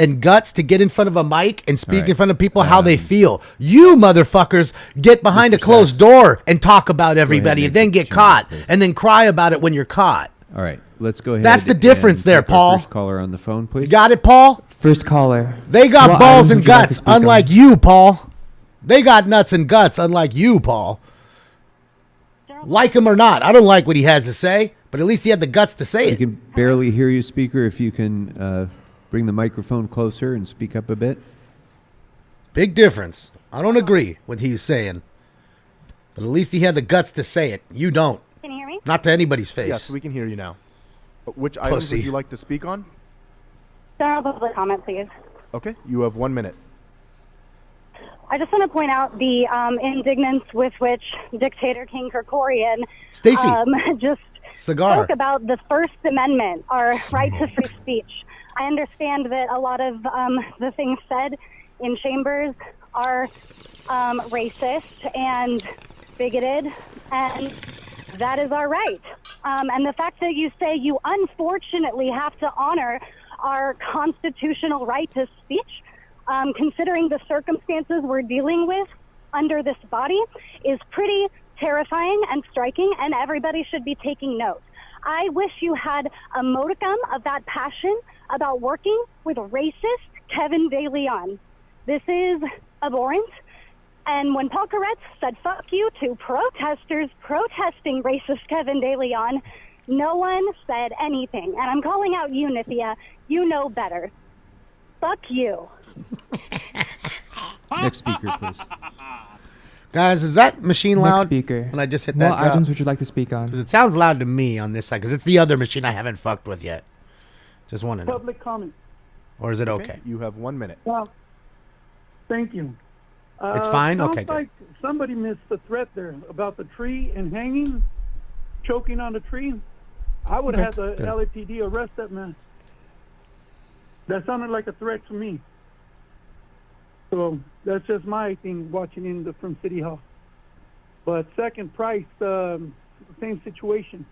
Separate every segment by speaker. Speaker 1: and guts to get in front of a mic and speak in
Speaker 2: right.
Speaker 1: front of people how they feel. You motherfuckers get behind a closed door and talk about everybody and
Speaker 2: make
Speaker 1: then
Speaker 2: the
Speaker 1: get
Speaker 2: change,
Speaker 1: caught
Speaker 2: please.
Speaker 1: and then cry about it when you're caught.
Speaker 2: All right, let's go ahead.
Speaker 1: That's the difference
Speaker 2: and
Speaker 1: there,
Speaker 2: take our
Speaker 1: Paul.
Speaker 2: First caller on the phone, please.
Speaker 1: Got it, Paul?
Speaker 3: First caller.
Speaker 1: They got
Speaker 3: What
Speaker 1: balls
Speaker 3: item
Speaker 1: and
Speaker 3: would you like to
Speaker 1: guts,
Speaker 3: speak on?
Speaker 1: unlike you, Paul. They got nuts and guts, unlike you, Paul. Like him or not, I don't like what he has to say, but at least he had the guts to say
Speaker 2: we
Speaker 1: it.
Speaker 2: can barely hear you, speaker. If you can uh, bring the microphone closer and speak up a bit.
Speaker 1: Big difference. I don't agree with he's saying, but at least he had the guts to say it. You don't.
Speaker 4: Can you hear me?
Speaker 1: Not to anybody's face.
Speaker 5: Yes, we can hear you now. Uh, Which items
Speaker 1: Pussy.
Speaker 5: would you like to speak on?
Speaker 4: General public comment, please.
Speaker 5: Okay, you have one minute.
Speaker 4: I just want to point out the um, indignance with which dictator King Kerkorian um,
Speaker 1: Stacy.
Speaker 4: just
Speaker 1: Cigar.
Speaker 4: spoke about the First Amendment, our right to free speech. I understand that a lot of um, the things said in chambers are um, racist and bigoted, and that is our right. Um, and the fact that you say you unfortunately have to honor our constitutional right to speech, um, considering the circumstances we're dealing with under this body, is pretty terrifying and striking, and everybody should be taking note. I wish you had a modicum of that passion about working with racist Kevin De Leon. This is abhorrent. And when Paul Koretz said fuck you to protesters protesting racist Kevin De Leon, no one said anything. And I'm calling out you, Nithya. You know better. Fuck you.
Speaker 2: Next speaker, please.
Speaker 1: Guys, is that machine
Speaker 3: Next
Speaker 1: loud?
Speaker 3: speaker.
Speaker 1: When I just hit
Speaker 3: what
Speaker 1: that.
Speaker 3: items
Speaker 1: drop?
Speaker 3: would you like to speak on?
Speaker 1: 'Cause it sounds loud to me on this side, because it's the other machine I haven't fucked with yet. Just want to know.
Speaker 6: Public comment.
Speaker 1: Or is it okay?
Speaker 5: You have one minute.
Speaker 6: Well, thank you. Uh,
Speaker 1: It's fine?
Speaker 6: Sounds
Speaker 1: Okay, good.
Speaker 6: like somebody missed the threat there about the tree and hanging, choking on the tree. I would have the
Speaker 1: good.
Speaker 6: LAPD arrest that man. That sounded like a threat to me. So that's just my thing watching in the, from City Hall. But second price, um, same situation.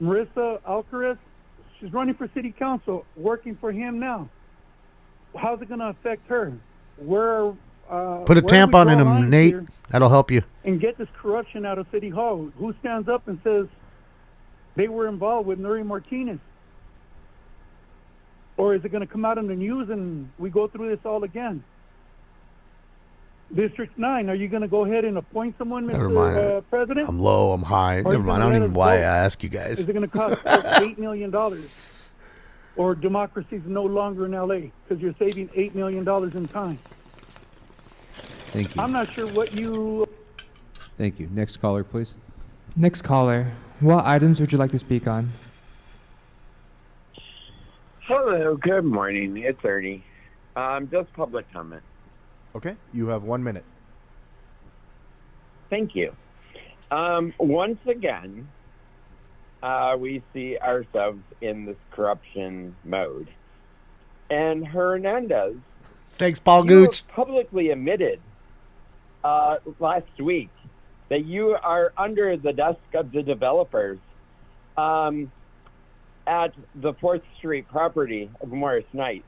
Speaker 6: Marissa Alcaraz, she's running for city council, working for him now. How's it going to affect her? Where uh,
Speaker 1: Put a
Speaker 6: where we
Speaker 1: tampon
Speaker 6: draw
Speaker 1: in him,
Speaker 6: lines
Speaker 1: Nate.
Speaker 6: here
Speaker 1: That'll help you.
Speaker 6: and get this corruption out of City Hall. Who stands up and says they were involved with Nuri Martinez? Or is it going to come out in the news and we go through this all again? District 9, are you going to go ahead and appoint someone,
Speaker 1: Never
Speaker 6: Mr.
Speaker 1: mind.
Speaker 6: Uh, President?
Speaker 1: I'm low. I'm high.
Speaker 6: Or
Speaker 1: Never
Speaker 6: you
Speaker 1: mind. I don't
Speaker 6: can let
Speaker 1: even
Speaker 6: us
Speaker 1: why I
Speaker 6: vote.
Speaker 1: ask you guys.
Speaker 6: Is it going to cost us eight million dollars? Or democracy is no longer in LA because you're saving eight million dollars in time.
Speaker 2: Thank
Speaker 6: I'm
Speaker 2: you.
Speaker 6: not sure what you.
Speaker 2: Thank you. Next caller, please.
Speaker 3: Next caller. What items would you like to speak on?
Speaker 7: Hello, good morning. It's Ernie. Um, just public comment.
Speaker 5: Okay, you have one minute.
Speaker 7: Thank you. Um, once again, uh, we see ourselves in this corruption mode. And Hernandez,
Speaker 1: Thanks, Paul
Speaker 7: you have
Speaker 1: Gooch.
Speaker 7: publicly admitted uh, last week that you are under the desk of the developers um, at the Fourth Street property of Morris Knight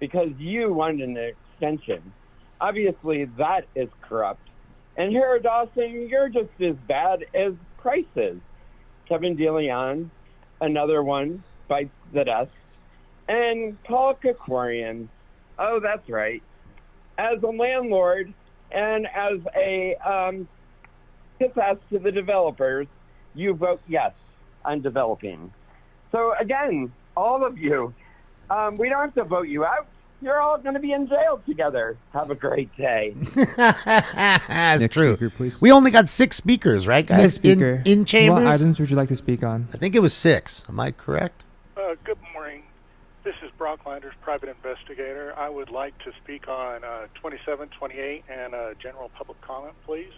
Speaker 7: because you wanted an extension. Obviously, that is corrupt. And Hera Dawson, you're just as bad as Price is. Kevin DeLeon, another one bites the dust. And Paul Kakorian, oh, that's right. As a landlord and as a um, kiss ass to the developers, you vote yes on developing. So, again, all of you, um, we don't have to vote you out. You're all going to be in jail together. Have a great day.
Speaker 1: That's
Speaker 2: Next
Speaker 1: true.
Speaker 2: speaker, please.
Speaker 1: We only got six speakers, right, guys?
Speaker 3: Next speaker.
Speaker 1: In, in chambers?
Speaker 3: What items would you like to speak on?
Speaker 1: I think it was six. Am I correct?
Speaker 8: Uh, good morning. This is Brock Landers, private investigator. I would like to speak on uh, 27, 28, and uh, general public comment, please.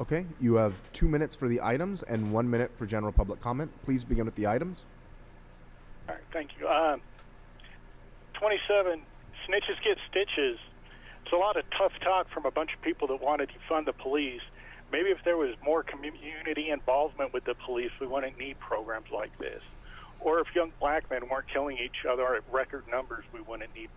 Speaker 5: Okay, you have two minutes for the items and one minute for general public comment. Please begin with the items.
Speaker 8: All right, thank you. Um, 27, snitches get stitches. It's a lot of tough talk from a bunch of people that want to defund the police. Maybe if there was more community involvement with the police, we wouldn't need programs like this. Or if young black men weren't killing each other at record numbers, we wouldn't need